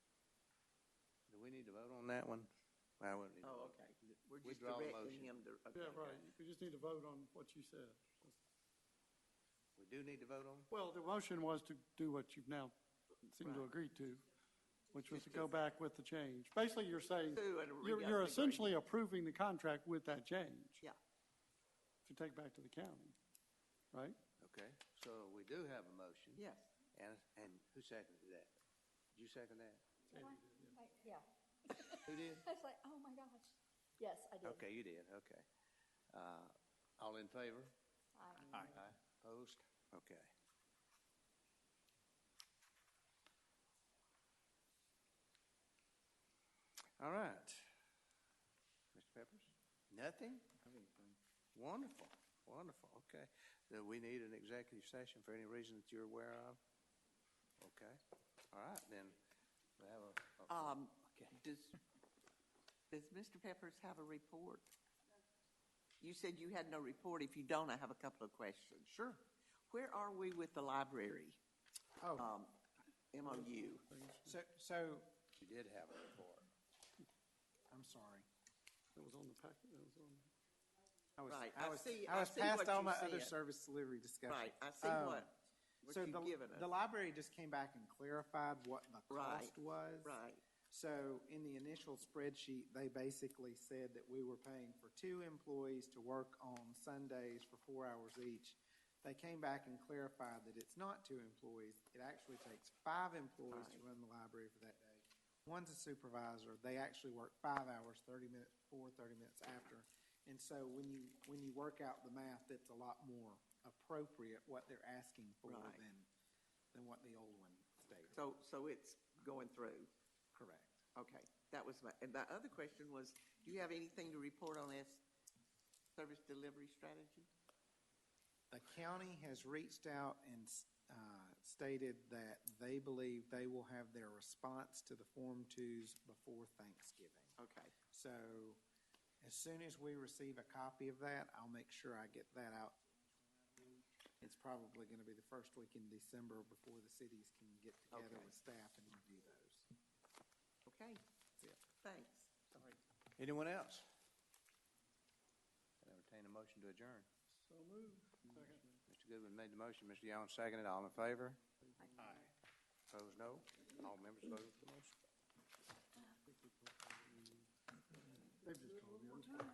need to vote on that one? I wouldn't need to Oh, vote. okay. We're We just draw a directing motion. him to. okay, Yeah, okay. right, you just need to vote on what you said. We do need to vote on? Well, the motion was to do what you've now seemed to Right. agree to, which was to go back with the change. Basically, you're saying, Do it, we you're, got you're the essentially approving the contract with that change. Yeah. To take back to the county, right? Okay, so we do have a motion. Yes. And, and who seconded that? Did you second that? I- Yeah, Who did? I was like, oh my gosh. Yes, I did. Okay, you did, okay. Uh, all in favor? I- Aye. Opposed? Okay. All right. Mr. Peppers? Nothing? Wonderful, wonderful, okay. Do we need an executive session for any reason that you're aware of? Okay, all right, then. we have a- a- Um, Okay. does, does Mr. Peppers have a report? You said you had no report. If you don't, I have a couple of questions. Sure. Where are we with the library? Oh, Um, MOU. so, so, You did have a report. I'm sorry. That was on the packet, that was on. I was, Right, I I was, see- I I was see what past all you my other said. service delivery discussion. Right, I see Um, what, what So you've the, given the us. library just came back and clarified what the Right, cost was. Right, So in the initial spreadsheet, they basically said that we were paying for two employees to work on Sundays for four hours each. They came back and clarified that it's not two employees. It actually takes five employees to Right. run the library for that day. One's a supervisor. They actually work five hours, thirty minutes before, thirty minutes after. And so when you, when you work out the math, that's a lot more appropriate what they're asking for Right. than, than what the old one stated. so, so it's going through. Correct. Okay, that was my, and my other question was, do you have anything to report on this service delivery strategy? The county has reached out and uh, stated that they believe they will have their response to the Form Twos before Thanksgiving. Okay, So as soon as we receive a copy of that, I'll make sure I get that out. It's probably going to be the first week in December before the cities can get together Okay. with staff and review those. okay, That's it. thanks. Sorry. Anyone else? I'd entertain a motion to adjourn. So moved. Second. Mr. Goodwin made the motion, Mr. Young seconded, all in favor? Aye. Opposed, no. All members voted for the motion.